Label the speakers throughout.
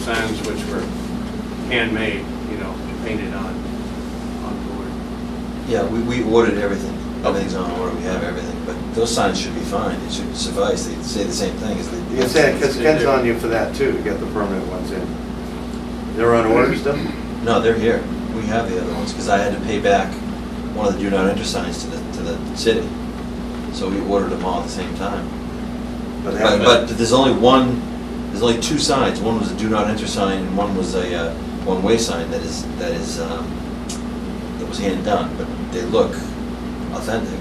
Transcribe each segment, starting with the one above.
Speaker 1: signs which were handmade, you know, painted on, on board.
Speaker 2: Yeah, we, we ordered everything. Everything's on order, we have everything, but those signs should be fine, it should suffice, they say the same thing as they.
Speaker 3: You said, because Ken's on you for that too, to get the permanent ones in. They're on order still?
Speaker 2: No, they're here. We have the other ones, because I had to pay back one of the do not enter signs to the, to the city. So we ordered them all at the same time.
Speaker 3: But
Speaker 2: But,
Speaker 3: haven't-
Speaker 2: but there's only one, there's only two signs. One was a do not enter sign, and one was a, uh, one-way sign that is, that is, um, that was hand-done, but they look authentic.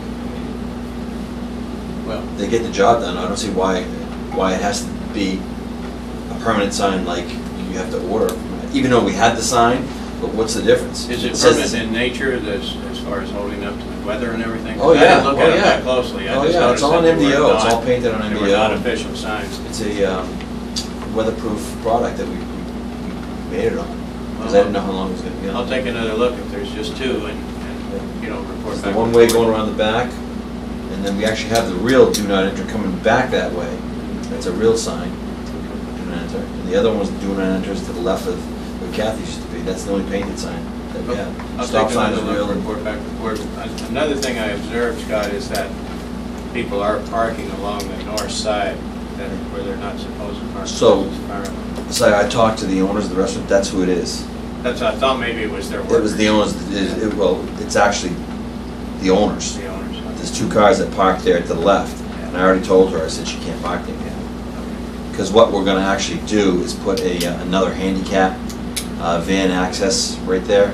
Speaker 1: Well,
Speaker 2: They get the job done. I don't see why, why it has to be a permanent sign like you have to order. Even though we had the sign, but what's the difference?
Speaker 1: is it
Speaker 2: says-
Speaker 1: permanent in nature, as, as far as holding up to the weather and everything?
Speaker 2: Oh,
Speaker 1: I
Speaker 2: yeah,
Speaker 1: didn't look
Speaker 2: oh,
Speaker 1: at it
Speaker 2: yeah.
Speaker 1: that closely, I
Speaker 2: Oh,
Speaker 1: just
Speaker 2: yeah, it's
Speaker 1: noticed
Speaker 2: all
Speaker 1: that
Speaker 2: on
Speaker 1: they were
Speaker 2: MDO, it's
Speaker 1: not-
Speaker 2: all painted on
Speaker 1: They
Speaker 2: MDO.
Speaker 1: were not official signs.
Speaker 2: It's a um, weatherproof product that we we made it on, because I didn't know how long it was gonna be on.
Speaker 1: Uh-huh. I'll take another look if there's just two and, and, you know, report
Speaker 2: It's
Speaker 1: back.
Speaker 2: the one way going around the back, and then we actually have the real do not enter coming back that way. That's a real sign, do not enter. And the other one was do not enter is to the left of where Kathy used to be. That's the only painted sign that we have.
Speaker 1: I'll
Speaker 2: Stop
Speaker 1: take
Speaker 2: sign
Speaker 1: another
Speaker 2: is real.
Speaker 1: look,
Speaker 2: and-
Speaker 1: report back to the board. An- Another thing I observed, Scott, is that people are parking along the north side that, where they're not supposed to park.
Speaker 2: So-
Speaker 1: It's fire.
Speaker 2: So I talked to the owners of the restaurant, that's who it is.
Speaker 1: That's, I thought maybe it was their workers.
Speaker 2: It was the owners, it- it- well, it's actually the owners.
Speaker 1: The owners.
Speaker 2: There's two cars that parked there to the left, and I already told her, I said she can't park there. Because what we're gonna actually do is put a, uh, another handicap uh, van access right there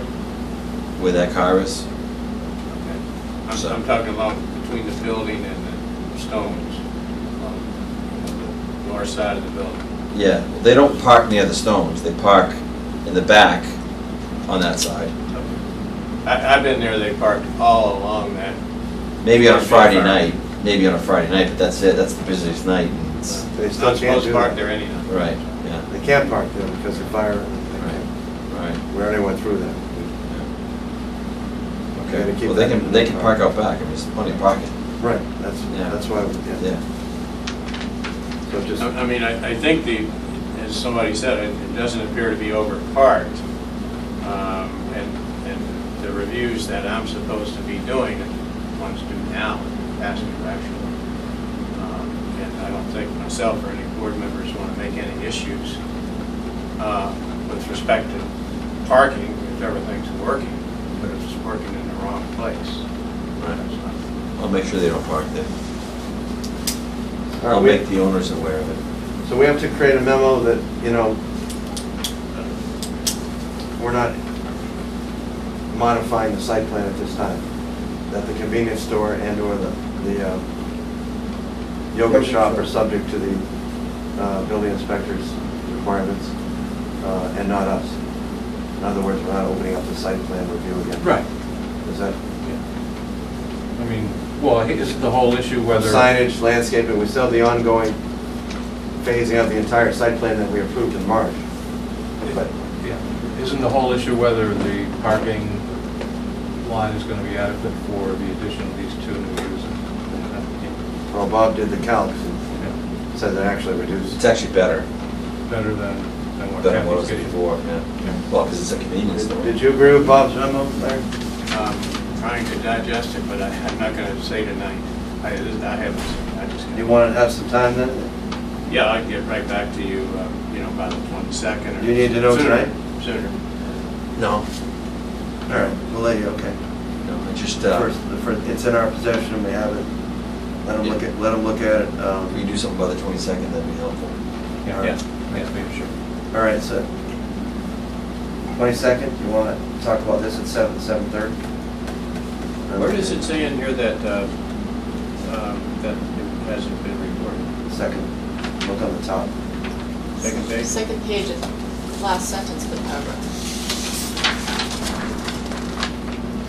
Speaker 2: where that car is.
Speaker 1: Okay.
Speaker 2: So-
Speaker 1: I'm, I'm talking along between the building and the stones, on the north side of the building.
Speaker 2: Yeah, they don't park near the stones, they park in the back on that side.
Speaker 1: I, I've been there, they parked all along that.
Speaker 2: Maybe on a Friday night, maybe on a Friday night, but that's it, that's the busiest night. and it's-
Speaker 3: They still
Speaker 1: Not
Speaker 3: can't
Speaker 1: supposed
Speaker 3: do
Speaker 1: to park
Speaker 3: that.
Speaker 1: there anyhow.
Speaker 2: Right, yeah,
Speaker 3: They can't park there because of fire. and they can't-
Speaker 2: right.
Speaker 3: We already went through that. Gotta
Speaker 2: Okay,
Speaker 3: keep
Speaker 2: well, they
Speaker 3: that
Speaker 2: can, they can
Speaker 3: in
Speaker 2: park
Speaker 3: mind.
Speaker 2: out back, I mean, there's plenty of parking,
Speaker 3: Right, that's,
Speaker 2: Yeah.
Speaker 3: that's why, we- yeah.
Speaker 2: yeah.
Speaker 3: So just,
Speaker 1: I I mean, I, I think the, as somebody said, it it doesn't appear to be overparked. Um, And, and the reviews that I'm supposed to be doing, ones due now, past due actually. Um, And I don't think myself or any board members want to make any issues uh, with respect to parking, if everything's working, but if it's working in the wrong place. that's not-
Speaker 2: I'll make sure they don't park there.
Speaker 3: all right,
Speaker 2: I'll
Speaker 3: we-
Speaker 2: make the owners aware of it.
Speaker 3: so we have to create a memo that, you know, we're not modifying the site plan at this time. That the convenience store and/or the, the uh, yoga shop are subject to the uh, building inspector's requirements, uh, and not us. In other words, we're not opening up the site plan review again. Is that
Speaker 4: I mean, well, is the whole issue whether.
Speaker 3: signage, landscaping, we still have the ongoing phasing of the entire site plan that we approved in March. But
Speaker 4: Yeah. Isn't the whole issue whether the parking lot is going to be adequate for the addition of these two new users?
Speaker 3: Well, Bob did the calcs
Speaker 4: Yeah,
Speaker 3: and
Speaker 4: yeah,
Speaker 3: said that actually reduced.
Speaker 2: It's actually better
Speaker 4: Better than, than what
Speaker 2: than what it was
Speaker 4: Kathy's getting.
Speaker 2: before, yeah. Well, because it's a convenience store.
Speaker 3: Did did you agree with Bob's memo, Larry?
Speaker 1: um, trying to digest it, but I- I'm not going to say tonight. I I haven't, seen it. I just.
Speaker 3: You want to have some time then?
Speaker 1: Yeah, I'll get right back to you, um, you know, by the 22nd. or
Speaker 3: You need to know
Speaker 1: sooner-
Speaker 3: tonight?
Speaker 1: Sooner.
Speaker 2: No,
Speaker 3: All right, we'll let you, okay.
Speaker 2: no, I just, uh,
Speaker 3: First, the fir- it's in our possession and we have it. Let him look at, let him look at it.
Speaker 2: if we
Speaker 3: um,
Speaker 2: do something by the twenty-second, that'd be helpful.
Speaker 4: Yeah,
Speaker 1: Yeah.
Speaker 4: yeah, maybe sure.
Speaker 3: All right, so, 22nd, you want to talk about this at 7, 7:30?
Speaker 1: Where does it say in here that, uh, um, that it hasn't been reported?
Speaker 3: Second, look on the top.
Speaker 1: Second page?
Speaker 5: Second page, is last sentence of the paragraph.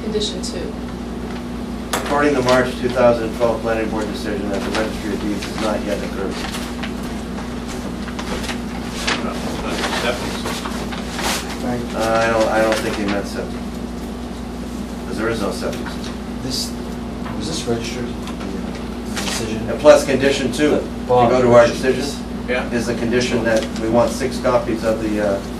Speaker 5: Condition two.
Speaker 3: According to March 2012 Planning Board decision, that the registry of deeds is not yet approved.
Speaker 1: No, that's acceptance.
Speaker 3: Uh, I don't, I don't think he meant septic. Because there is no septic. system.
Speaker 2: This, was this registered, the uh, decision?
Speaker 3: And plus, condition two, if you
Speaker 2: Bob,
Speaker 3: go to our
Speaker 2: this-
Speaker 3: decisions,
Speaker 1: Yeah.
Speaker 3: is the condition that we want six copies of the uh,